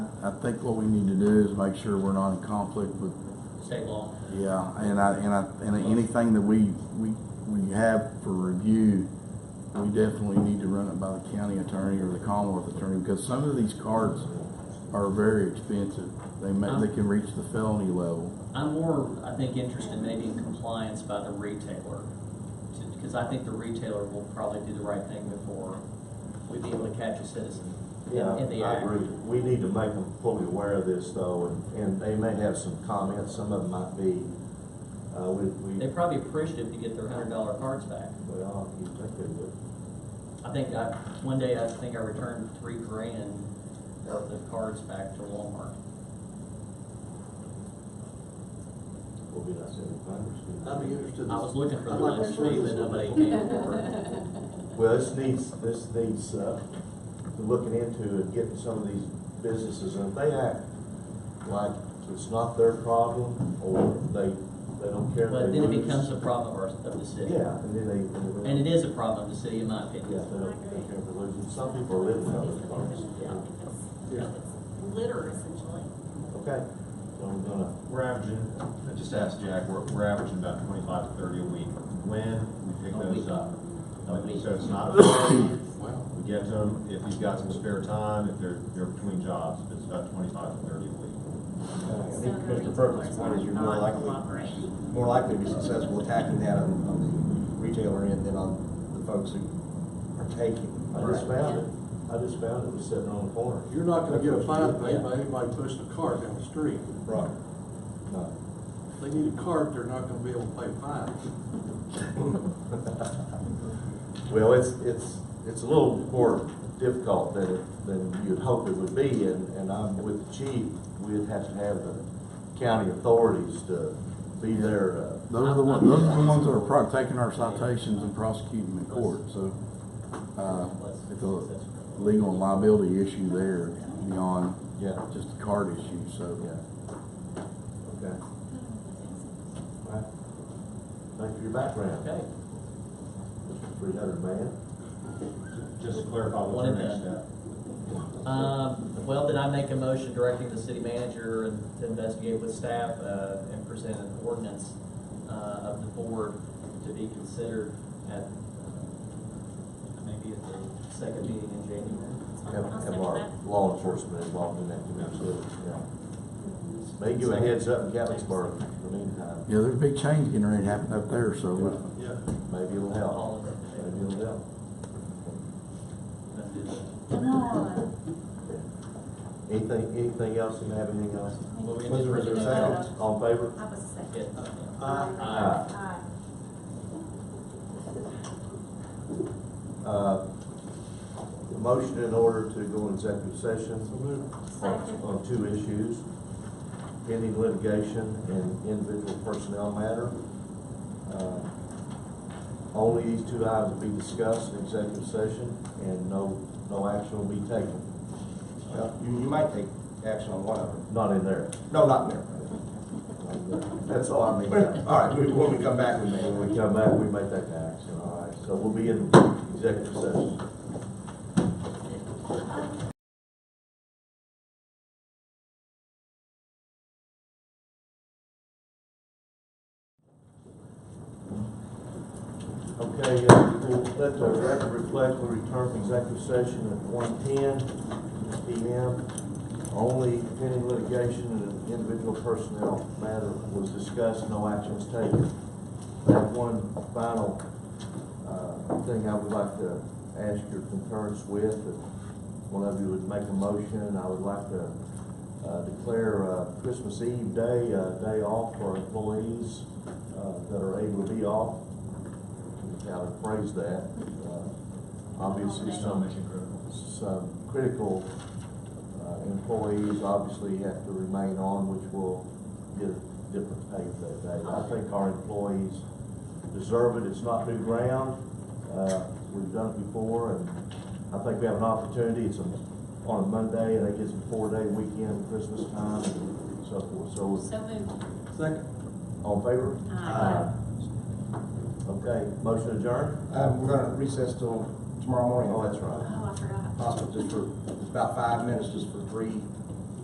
I think what we need to do is make sure we're not in conflict with, state law. yeah, and I, and I, and anything that we, we, we have for review, we definitely need to run it by the county attorney or the Commonwealth attorney, because some of these cards are very expensive. They may, they can reach the felony level. I'm more, I think, interested maybe in compliance by the retailer, because I think the retailer will probably do the right thing before we'd be able to catch a citizen in Yeah, in the I act. agree. We need to make them fully aware of this though, and, and they may have some comments, some of them might be, uh, we, we, They're probably appreciative to get their hundred dollar cards back. well, you think they would. I think I, one day I think I returned three grand worth of cards back to Walmart. We'll be not sending finders. I'd be interested. I was looking for the I'd like to last see name this and one. nobody came forward. Well, this needs, this needs, uh, looking into and getting some of these businesses, and if they act like it's not their problem, or they, they don't care. But they then it lose. becomes a problem of our, of the city. Yeah, and then they. And it is a problem of the city, in my Yeah, opinion. they don't, they don't care for losing, some people are living out of their cars. It's Litter essentially. Okay, so we're gonna, We're averaging, I just asked Jack, we're, we're averaging about twenty-five to thirty a week. When we pick A those week. up. A week. So it's not, we Wow. get them, if you've got some spare time, if they're, they're between jobs, it's about twenty-five to thirty a week. I So think the Commissioner retailers Perkins' point are is you're more not likely, cooperating. more likely to be successful attacking that on, on the retailer end than on the folks who are taking. I just found it, I just found it, was sitting on the corner. You're not gonna get a fine paid by anybody pushing a cart down the street. Right. No. If they need a cart, they're not gonna be able to pay fines. Well, it's, it's, it's a little more difficult than, it- than you'd hope it would be, and, and I'm with the chief, we'd have to have the county authorities to be there, uh, Those are the ones, those are the ones that are pro- taking our citations and prosecuting in court, so, uh, it's a legal and liability issue there beyond yeah, just the card issue, so. yeah. Okay. All right. Thank you for your background, Okay, Mr. Three Hundred Man. Just to clarify, what's One our of them. next step? Uh, um, well, then I make a motion directing the city manager and to investigate with staff, uh, and present an ordinance, uh, of the board to be considered at, uh, maybe at the second meeting in January. Have, I'll have second our that. law enforcement involved in that, absolutely, yeah. They give a heads up in Gatlinburg in the meantime, Yeah, there's a big change getting ready to happen up there, so Yeah. maybe it'll help, All in favor? maybe it'll help. Let's do that. Come on. Anything, anything else, you have anything else? Well, we Was there, was there a second, all in favor? I was second. Uh, Yes. Aye. Aye. Uh, the motion in order to go in executive session on, uh. Second. on two issues, pending litigation and individual personnel matter. Uh, Only these two items will be discussed in executive session, and no, no action will be taken, Well, You, you might take action on one of them. not in there. No, not there. That's all I mean. All right, we- when we come back, we may. When we come back, we make that action, all right, so we'll be in executive session. Okay, uh, we'll let the record reflect, we return from executive session at one ten PM. Only pending litigation and an individual personnel matter was discussed, no actions taken. I have one final, uh, thing I would like to ask your concurrence with, if one of you would make a motion, I would like to, uh, declare, uh, Christmas Eve day, uh, day off for employees, uh, that are able to be off. How to phrase that, uh, obviously some Mission critical. some critical uh, employees obviously have to remain on, which will get a different pay for that day. I think our employees deserve it, it's not new ground, Uh, we've done it before, and I think we have an opportunity, it's on on a Monday, and it gets a four-day weekend, Christmas time, and so forth, so So moved. Uh, Second. all in favor? Aye. Okay, motion adjourned? Um, we're gonna recess till tomorrow morning. Oh, that's right. Oh, I forgot. Possible just for, it's about five minutes, just for three